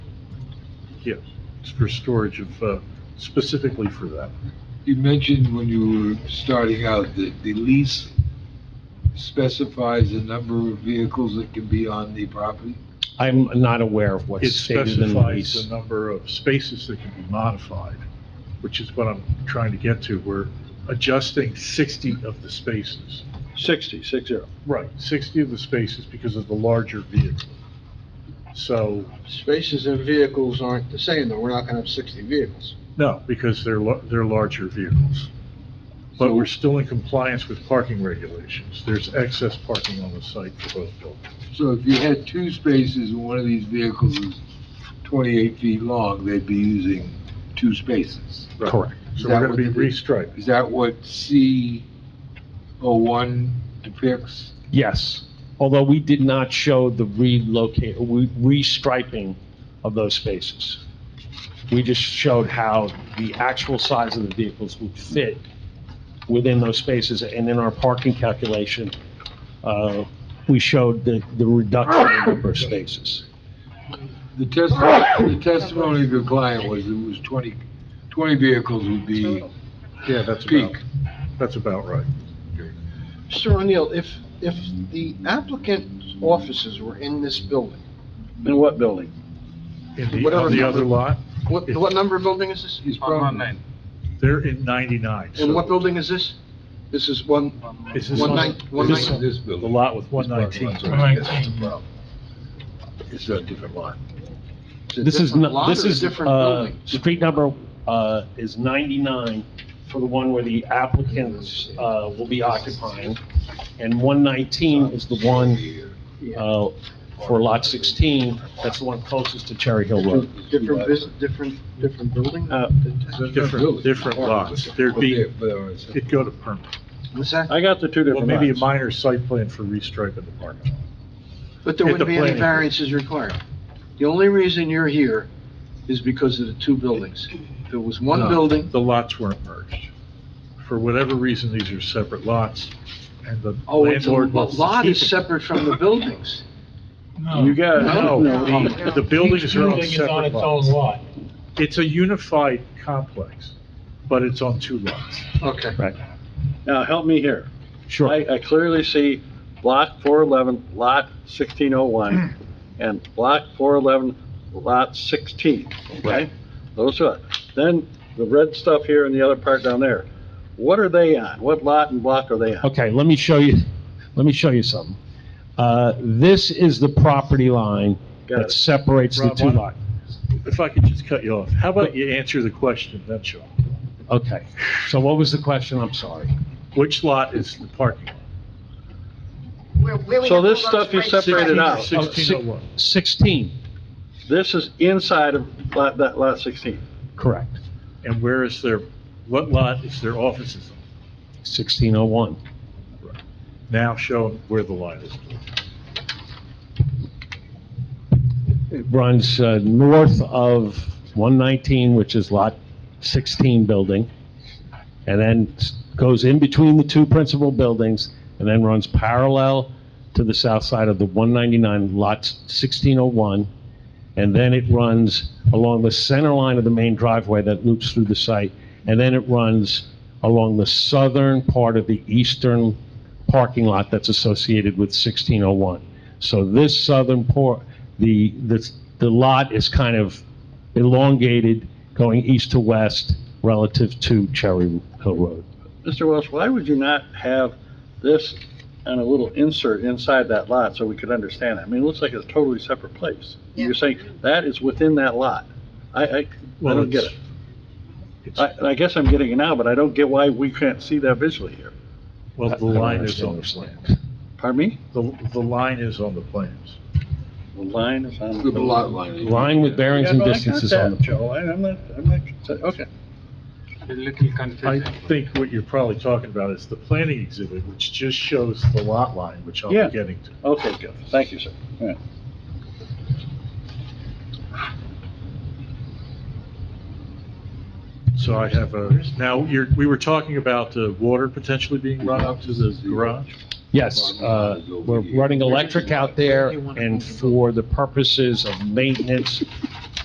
Yes, it's for storage of, uh, specifically for that. You mentioned when you were starting out that the lease specifies the number of vehicles that can be on the property? I'm not aware of It what's stated in the specifies the lease. number of spaces that can be modified, which is what I'm trying to get to. We're adjusting 60 of the spaces. 60, six zero. Right, 60 of the spaces because of the larger vehicle. So, Spaces and vehicles aren't the same, though. We're not gonna have 60 vehicles. no, because they're, lar- they're larger vehicles. But we're still in compliance with parking regulations. There's excess parking on the site for both buildings. So if you had two spaces and one of these vehicles is 28 feet long, they'd be using two spaces. Correct. Is So that we're going what to be they did? restriping. Is that what C01 depicts? Yes, although we did not show the relocate, we- restriping of those spaces. We just showed how the actual size of the vehicles would fit within those spaces, and in our parking calculation, uh, we showed the the reduction in number of spaces. The testimony, the testimony of your client was it was 20, 20 vehicles would be Yeah, that's about, peak. that's about right. Mr. O'Neill, if, if the applicant's offices were in this building, In what building? In the, Whatever on the number- other lot, what, what number of building is this? is probably they're in 99. so- And what building is this? This is one, Is this One on- nine- one is this nine- on this The building. lot with 119. It's a different lot. it's a This is, different no- lot this or a is, different uh, building? street number uh, is 99 for the one where the applicants uh, will be occupying, and 119 is the one uh, for lot 16, that's the one closest to Cherry Hill Road. Different bus, different, different building? Uh, Different, different lots. There'd be, But there are some- it'd go to permit. What's that? I got the two Well, different maybe a lots. minor site plan for restriping the parking. lot. But there Hit wouldn't the be any planning. variances required. The only reason you're here is because of the two buildings. If it was one No, building, The lots weren't merged. For whatever reason, these are separate lots, and the oh, it's a landlord wants to lot keep is it. separate from the buildings. You got, No, the, the buildings are on Each building separate is on its lots. own lot. It's a unified complex, but it's on two lots. Okay. now help me here. Sure. I, I clearly see block four eleven, lot sixteen oh one, Hmm. and block four eleven, lot sixteen, okay? Those are, then the red stuff here and the other part down there. What are they on? What lot and block are they on? Okay, let me show you, let me show you something. Uh, This is the property line Got that it. separates the Rob, two why- lots. If I could just cut you off, how about you answer the question, then Sean? Okay, so what was the question? I'm sorry. Which lot is the parking? lot? So this stuff you separated out, Oh, si- 1601. 16, this is inside of lot, that lot sixteen. correct, And where is their, what lot is their offices on? 1601. Now show them where the line is. It runs uh, north of 119, which is Lot 16 building, and then s- goes in between the two principal buildings, and then runs parallel to the south side of the 199, Lot 1601, and then it runs along the center line of the main driveway that loops through the site, and then it runs along the southern part of the eastern parking lot that's associated with 1601. So this southern port, the, the, the lot is kind of elongated going east to west relative to Cherry Hill Road. Mr. Welch, why would you not have this and a little insert inside that lot so we could understand it? I mean, it looks like it's a totally separate place. You're saying that is within that lot. I, I, I Well, don't get it. it's- it's- I, and I guess I'm getting it now, but I don't get why we can't see that visually here. Well, the I don't line is understand on the this. plans. Pardon me? The, the line is on the plans. The line is on. The lot line. Line with bearings Yeah, and no, I got distances that, on the. Joe, I- I'm not, I'm not, okay. I think what you're probably talking about is the planning exhibit, which just shows the lot line, which I'll Yeah. be getting to. Okay, good. Thank you, sir. All right. So I have a, now, you're, we were talking about the water potentially being run up to the garage? Yes, uh, we're running electric out there, and for the purposes of maintenance